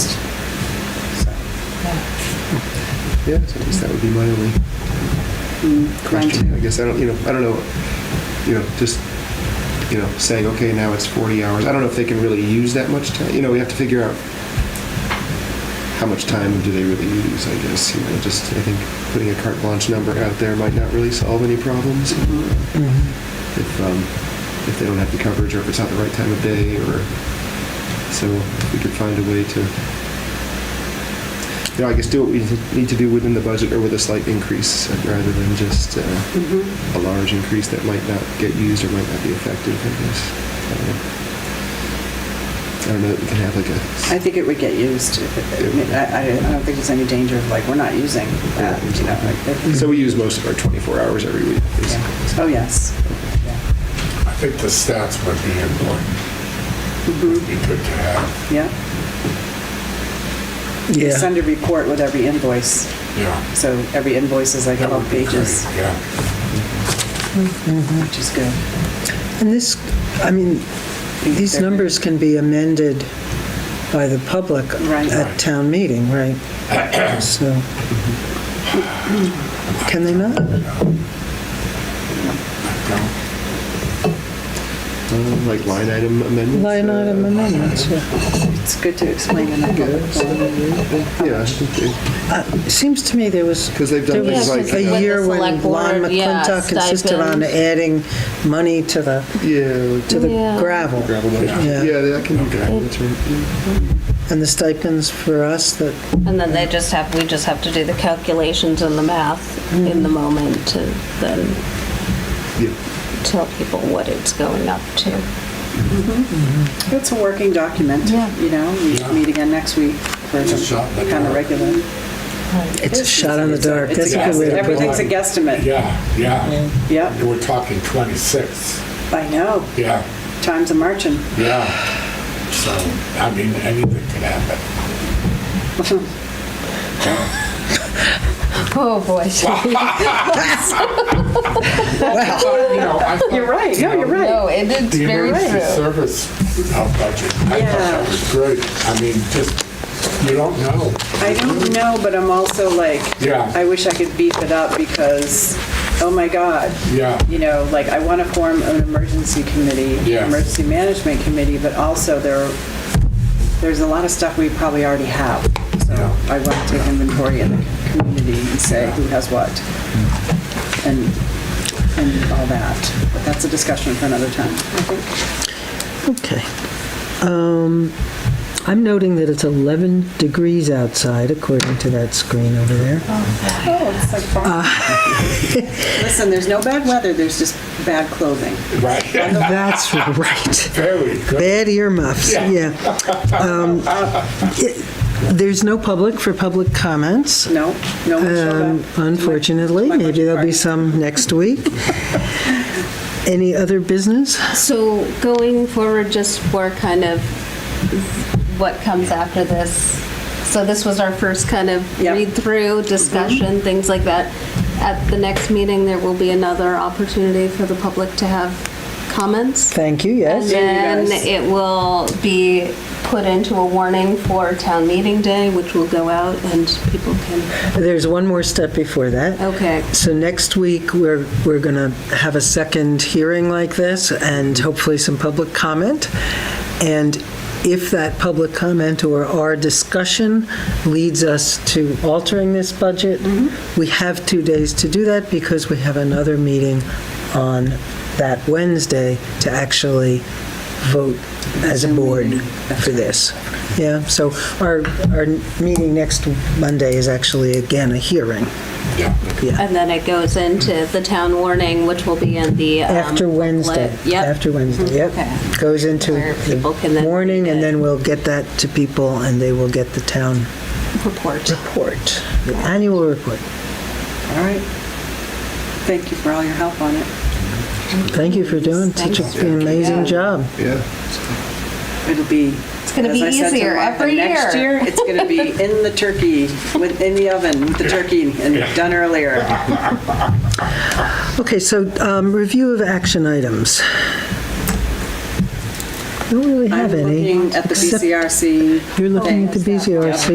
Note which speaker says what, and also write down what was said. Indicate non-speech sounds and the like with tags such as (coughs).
Speaker 1: Yeah, so I guess that would be my only
Speaker 2: Mm,
Speaker 1: question. I guess I don't, you know, I don't know, you know, just, you know, saying, okay, now it's 40 hours. I don't know if they can really use that much time. You know, we have to figure out how much time do they really use, I guess. You know, just, I think putting a carte blanche number out there might not really solve any problems. If, um, if they don't have the coverage or if it's not the right time of day or, so if we could find a way to you know, I guess do what we need to do within the budget or with a slight increase uh, rather than just uh,
Speaker 2: Mm-hmm.
Speaker 1: a large increase that might not get used or might not be effective, I guess. I don't know. I don't know that we can have like
Speaker 2: I
Speaker 1: a,
Speaker 2: think it would get used. I mean, I, I don't think there's any danger of like, we're not using that, uh, you know, like. that-
Speaker 1: so we use most of our 24 hours every week.
Speaker 2: Yeah.
Speaker 1: basically.
Speaker 2: Oh, yes. Yeah.
Speaker 3: I think the stats would be important. It'd be good to have,
Speaker 2: Yeah. You
Speaker 4: Yeah,
Speaker 2: Send a report with every invoice,
Speaker 3: yeah.
Speaker 2: so every invoice is like
Speaker 3: That
Speaker 2: 12
Speaker 3: would be
Speaker 2: pages,
Speaker 3: great, Yeah,
Speaker 2: which is good.
Speaker 4: and this, I mean, these
Speaker 2: They're-
Speaker 4: numbers can be amended by the public
Speaker 2: Right.
Speaker 4: at town meeting,
Speaker 2: (coughs)
Speaker 4: right? So, can they not?
Speaker 3: No,
Speaker 1: Um, Like line item amendments?
Speaker 4: Line
Speaker 1: uh,
Speaker 4: item amendments, yeah.
Speaker 2: It's good to explain in the public.
Speaker 1: Yeah, I think they-
Speaker 4: It Seems to me there was,
Speaker 1: 'Cause they've done
Speaker 4: there was
Speaker 1: things like-
Speaker 4: a
Speaker 1: With the
Speaker 4: year when
Speaker 5: select
Speaker 4: Lon
Speaker 5: board, yeah,
Speaker 4: McClintock insisted on
Speaker 5: stipends.
Speaker 4: adding money to the,
Speaker 1: yeah, like
Speaker 4: to the
Speaker 5: Yeah.
Speaker 4: gravel.
Speaker 1: gravel money.
Speaker 4: Yeah.
Speaker 1: Yeah, that can be good, that's right.
Speaker 4: And the stipends for us that,
Speaker 5: And then they just have, we just have to do the calculations and the math in the moment to then
Speaker 1: Yeah.
Speaker 5: tell people what it's going up to.
Speaker 2: It's a working document,
Speaker 5: Yeah.
Speaker 2: you know,
Speaker 3: Yeah.
Speaker 2: we meet again next week for
Speaker 3: It's a shot in the
Speaker 2: kind of
Speaker 3: dark.
Speaker 2: regular.
Speaker 4: it's a shot in the dark.
Speaker 2: It's a
Speaker 4: That's a
Speaker 2: guess.
Speaker 4: good way to put
Speaker 2: Everything's
Speaker 4: it.
Speaker 2: a guesstimate.
Speaker 3: yeah, yeah.
Speaker 2: Yep,
Speaker 3: We're talking 26,
Speaker 2: I know,
Speaker 3: yeah,
Speaker 2: times a (laughs) marching.
Speaker 3: yeah. So, I mean, anything could happen.
Speaker 5: Oh, boy.
Speaker 3: But, you know,
Speaker 2: (laughs)
Speaker 3: I thought,
Speaker 2: You're right, no, you're right.
Speaker 5: (laughs) No, it is
Speaker 3: The
Speaker 5: very
Speaker 3: emergency
Speaker 5: true.
Speaker 3: service uh, budget, I thought
Speaker 2: Yeah.
Speaker 3: that was great. I mean, just, you don't know.
Speaker 2: I don't know, but I'm also like,
Speaker 3: Yeah.
Speaker 2: I wish I could beef it up because, oh my God,
Speaker 3: Yeah,
Speaker 2: you know, like I want to form an emergency committee,
Speaker 3: Yeah.
Speaker 2: emergency management committee, but also there, there's a lot of stuff we probably already have. So
Speaker 3: Yeah.
Speaker 2: I want to take inventory in the community and say who has what and, and all that. But that's a discussion for another time, I think.
Speaker 4: Okay. Um, I'm noting that it's 11 degrees outside, according to that screen over there.
Speaker 2: Oh, it's like (laughs) Listen, there's no bad weather, there's just bad clothing.
Speaker 3: right.
Speaker 4: That's right.
Speaker 3: Very good.
Speaker 4: Bad earmuffs, yeah. Um, it- There's no public for public comments,
Speaker 2: No, no one showed
Speaker 4: um,
Speaker 2: up.
Speaker 4: unfortunately.
Speaker 2: My- my
Speaker 4: Maybe there'll be
Speaker 2: budget
Speaker 4: some next week. Any other business?
Speaker 5: So going forward, just for kind of what comes after this. So this was our first kind of
Speaker 2: Yep.
Speaker 5: read-through, discussion, things like that. At the next meeting, there will be another opportunity for the public to have comments.
Speaker 4: Thank you,
Speaker 5: And
Speaker 4: yes.
Speaker 2: Yeah, you
Speaker 5: then
Speaker 2: guys.
Speaker 5: it will be put into a warning for town meeting day, which will go out and people can,
Speaker 4: There's one more step before that.
Speaker 5: okay.
Speaker 4: So next week, we're, we're going to have a second hearing like this and hopefully some public comment. And if that public comment or our discussion leads us to altering this budget, we have two days to do that because we have another meeting on that Wednesday to actually vote as a board for this. Yeah, so our, our meeting next Monday is actually again a hearing.
Speaker 3: Yeah.
Speaker 5: And then it goes into the town warning, which will be in the. um,
Speaker 4: After Wednesday.
Speaker 5: booklet. Yep.
Speaker 4: After Wednesday, yep.
Speaker 5: Okay.
Speaker 4: Goes into
Speaker 5: Where people can
Speaker 4: the
Speaker 5: then
Speaker 4: morning,
Speaker 5: read
Speaker 4: and
Speaker 5: it.
Speaker 4: then we'll get that to people, and they will get the town
Speaker 5: Report.
Speaker 4: report, the annual report.
Speaker 2: All right. Thank you for all your help on it.
Speaker 4: Thank you for doing such
Speaker 5: Thanks.
Speaker 4: an amazing
Speaker 5: Yeah.
Speaker 4: job.
Speaker 1: Yeah.
Speaker 2: It'll be. It's
Speaker 5: gonna be easier every
Speaker 2: Next
Speaker 5: year.
Speaker 2: year, it's gonna
Speaker 5: (laughs)
Speaker 2: be in the turkey, with, in the oven, with the turkey and done earlier.
Speaker 4: Okay, so um, review of action items. Don't really
Speaker 2: I'm
Speaker 4: have any.
Speaker 2: looking at the
Speaker 4: except
Speaker 2: BCRC.
Speaker 4: You're looking at the
Speaker 2: thing. Yep.
Speaker 4: BCRC.